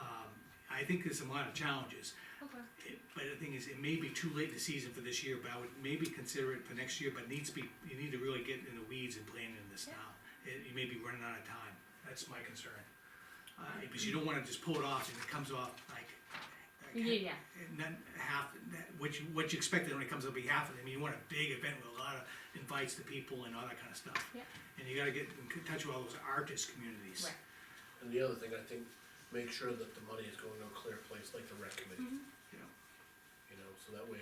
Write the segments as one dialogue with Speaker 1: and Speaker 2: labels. Speaker 1: Um, I think there's a lot of challenges.
Speaker 2: Okay.
Speaker 1: It- But the thing is, it may be too late in the season for this year, but I would maybe consider it for next year, but needs to be, you need to really get in the weeds and plan in this now. It- You may be running out of time, that's my concern. Uh,
Speaker 2: Mm-hmm.
Speaker 1: because you don't wanna just pull it off and it comes off like. like,
Speaker 2: Yeah, yeah.
Speaker 1: And then half, that, what you, what you expected only comes up to be half of it, I mean, you want a big event with a lot of invites to people and all that kinda stuff.
Speaker 2: Yeah.
Speaker 1: And you gotta get in touch with all those artist communities.
Speaker 2: Right.
Speaker 3: And the other thing, I think, make sure that the money is going to a clear place, like the rec committee,
Speaker 2: Mm-hmm.
Speaker 1: You know?
Speaker 3: you know, so that way,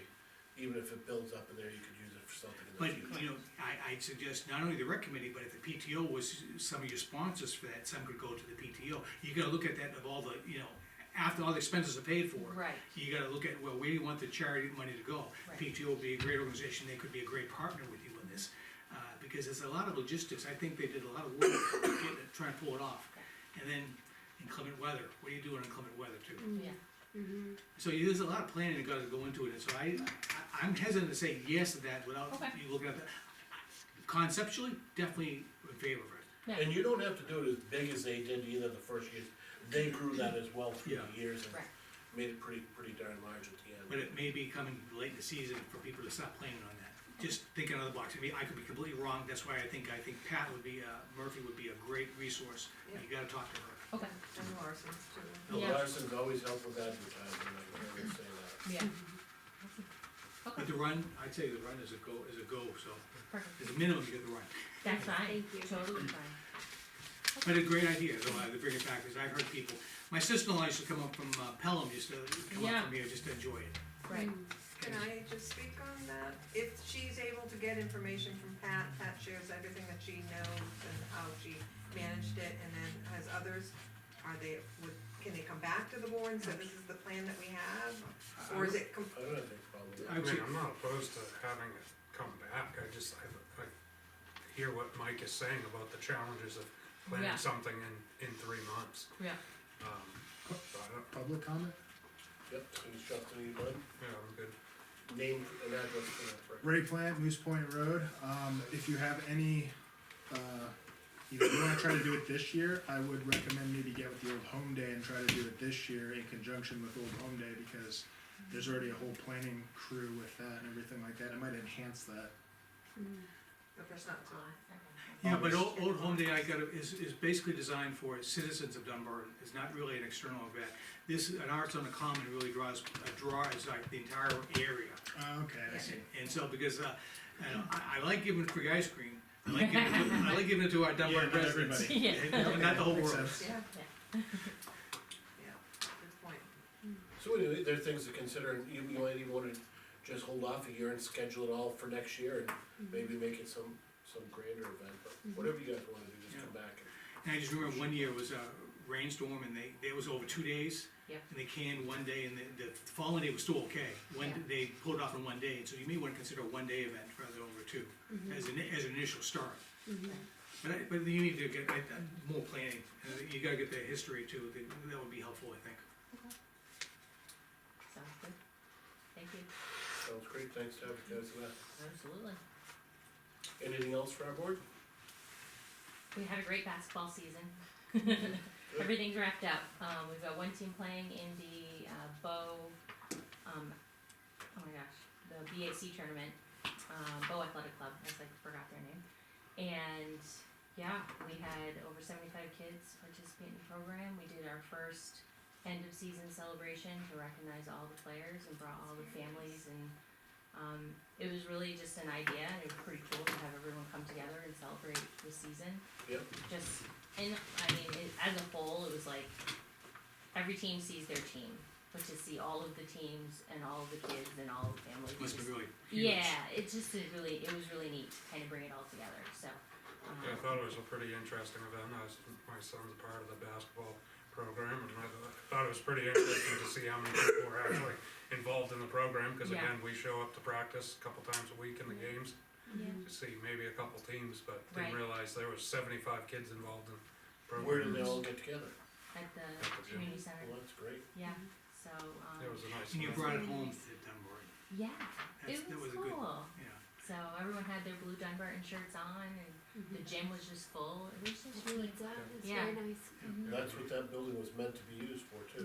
Speaker 3: even if it builds up in there, you could use it for something in the
Speaker 1: But,
Speaker 3: future.
Speaker 1: you know, I, I'd suggest not only the rec committee, but if the PTO was some of your sponsors for that, some could go to the PTO. You gotta look at that of all the, you know, after all the expenses are paid for.
Speaker 2: Right.
Speaker 1: You gotta look at, well, where do you want the charity money to go?
Speaker 2: Right.
Speaker 1: PTO would be a great organization, they could be a great partner with you in this. Uh, because there's a lot of logistics, I think they did a lot of work to get it, try and pull it off. And then inclement weather, what do you do in inclement weather too?
Speaker 2: Yeah,
Speaker 1: So you- there's a lot of planning that gotta go into it, and so I, I- I'm hesitant to say yes to that without
Speaker 2: Okay.
Speaker 1: you looking at the. Conceptually, definitely in favor of it,
Speaker 2: yeah,
Speaker 3: And you don't have to do it as big as they did either the first years, they grew that as well through
Speaker 1: Yeah.
Speaker 3: the years and
Speaker 2: Right.
Speaker 3: made it pretty, pretty darn large at the end.
Speaker 1: but it may be coming late in the season for people to stop planning on that. Just thinking out of the box, I mean, I could be completely wrong, that's why I think, I think Pat would be, uh, Murphy would be a great resource, you gotta talk to her.
Speaker 2: okay,
Speaker 4: And Larson's too.
Speaker 3: Bill
Speaker 2: Yeah.
Speaker 3: Larson's always helped with advertising, I can always say that.
Speaker 2: yeah. Okay,
Speaker 1: But the run, I'd say the run is a go, is a go, so,
Speaker 2: perfect,
Speaker 1: as a minimum, you get the run.
Speaker 2: that's fine, totally fine.
Speaker 1: But a great idea, though, uh, to bring it back, because I've heard people, my sister-in-law used to come up from uh, Pelham, used to come up
Speaker 2: Yeah.
Speaker 1: from here just to enjoy it.
Speaker 2: Right,
Speaker 4: Can I just speak on that? If she's able to get information from Pat, Pat shares everything that she knows and how she managed it, and then has others, are they, would, can they come back to the board and say, this is the plan that we have? Or is it, com-
Speaker 3: I don't have any problem with
Speaker 1: I
Speaker 3: that.
Speaker 5: I
Speaker 1: would
Speaker 5: mean,
Speaker 1: say-
Speaker 5: I'm not opposed to having it come back, I just, I, I hear what Mike is saying about the challenges of
Speaker 2: Yeah.
Speaker 5: planning something in, in three months.
Speaker 2: yeah,
Speaker 5: Um, uh, so I don't,
Speaker 6: Public comment?
Speaker 3: Yep, so you shop to need one,
Speaker 5: yeah, I'm good.
Speaker 3: name and address for that, right?
Speaker 6: Ray Plant, Moose Point Road, um, if you have any, uh, you know, you wanna try to do it this year, I would recommend maybe get with the Old Home Day and try to do it this year in conjunction with Old Home Day, because there's already a whole planning crew with that and everything like that, it might enhance that.
Speaker 4: if there's not, so,
Speaker 1: Yeah, but Old, Old Home Day I got, is, is basically designed for citizens of Dunbar, it's not really an external event. This, an Arts on the Common really draws, uh, draws like the entire area.
Speaker 6: Uh, okay, I see.
Speaker 1: And so, because, uh, you know, I, I like giving free ice cream, I like giving, I like giving it to our Dunbar
Speaker 6: Yeah, not
Speaker 1: residents.
Speaker 6: everybody.
Speaker 2: yeah,
Speaker 1: And- and Not the whole
Speaker 6: Makes
Speaker 1: world.
Speaker 6: sense.
Speaker 4: yeah,
Speaker 2: yeah.
Speaker 4: yeah, good point.
Speaker 3: So anyway, there are things to consider, and you you might even wanna just hold off a year and schedule it all for next year, and maybe make it some, some grander event, but whatever you guys wanna do, just come back.
Speaker 1: And I just remember one year was a rainstorm and they, it was over two days.
Speaker 2: Yeah.
Speaker 1: And they canned one day and the, the following day was still okay. One,
Speaker 2: Yeah.
Speaker 1: they pulled off in one day, so you may wanna consider a one-day event rather than over two, as an, as an initial start. But I, but you need to get, I, I- more planning, Uh, you gotta get the history too, that, that would be helpful, I think.
Speaker 2: Sounds good, thank you,
Speaker 3: Sounds great, thanks to have you guys for that.
Speaker 2: absolutely.
Speaker 3: Anything else for our board?
Speaker 2: We had a great basketball season. Everything's wrapped up. Um, we've got one team playing in the, uh, Bow, um, oh my gosh, the BAC tournament, uh, Bow Athletic Club, I just like forgot their name. And, yeah, we had over seventy-five kids participate in the program. We did our first end of season celebration to recognize all the players and brought all the families and, um, it was really just an idea and it was pretty cool to have everyone come together and celebrate the season
Speaker 3: Yep,
Speaker 2: just and I mean it, as a whole, it was like every team sees their team, but to see all of the teams and all of the kids and all of the families,
Speaker 1: Must be
Speaker 2: just-
Speaker 1: really huge.
Speaker 2: yeah, it just is really it was really neat to kind of bring it all together. So um,
Speaker 5: Yeah, I thought it was a pretty interesting event, I was, my son's part of the basketball program, and I thought- I thought it was pretty interesting to see how many people were actually involved in the program, cause
Speaker 2: Yeah.
Speaker 5: again, we show up to practice a couple times a week in the games,
Speaker 2: yeah.
Speaker 5: to see maybe a couple teams, but didn't
Speaker 2: Right.
Speaker 5: realize there was seventy-five kids involved in the program.
Speaker 3: where did they all get together?
Speaker 2: at the
Speaker 5: At the gym.
Speaker 2: community
Speaker 3: Well,
Speaker 2: center,
Speaker 3: that's great.
Speaker 2: yeah. So um,
Speaker 5: It was a nice.
Speaker 1: And you
Speaker 5: event.
Speaker 1: brought it home to Dunbar,
Speaker 2: yeah,
Speaker 1: that's,
Speaker 2: it
Speaker 1: that was a
Speaker 2: cool.
Speaker 1: good, yeah.
Speaker 2: So everyone had their blue Dunbarton shirts on, and the gym was just full. It was just really
Speaker 7: Mm-hmm. It's, uh, it's
Speaker 2: Yeah.
Speaker 7: very nice.
Speaker 3: That's what that building was meant to be used for too.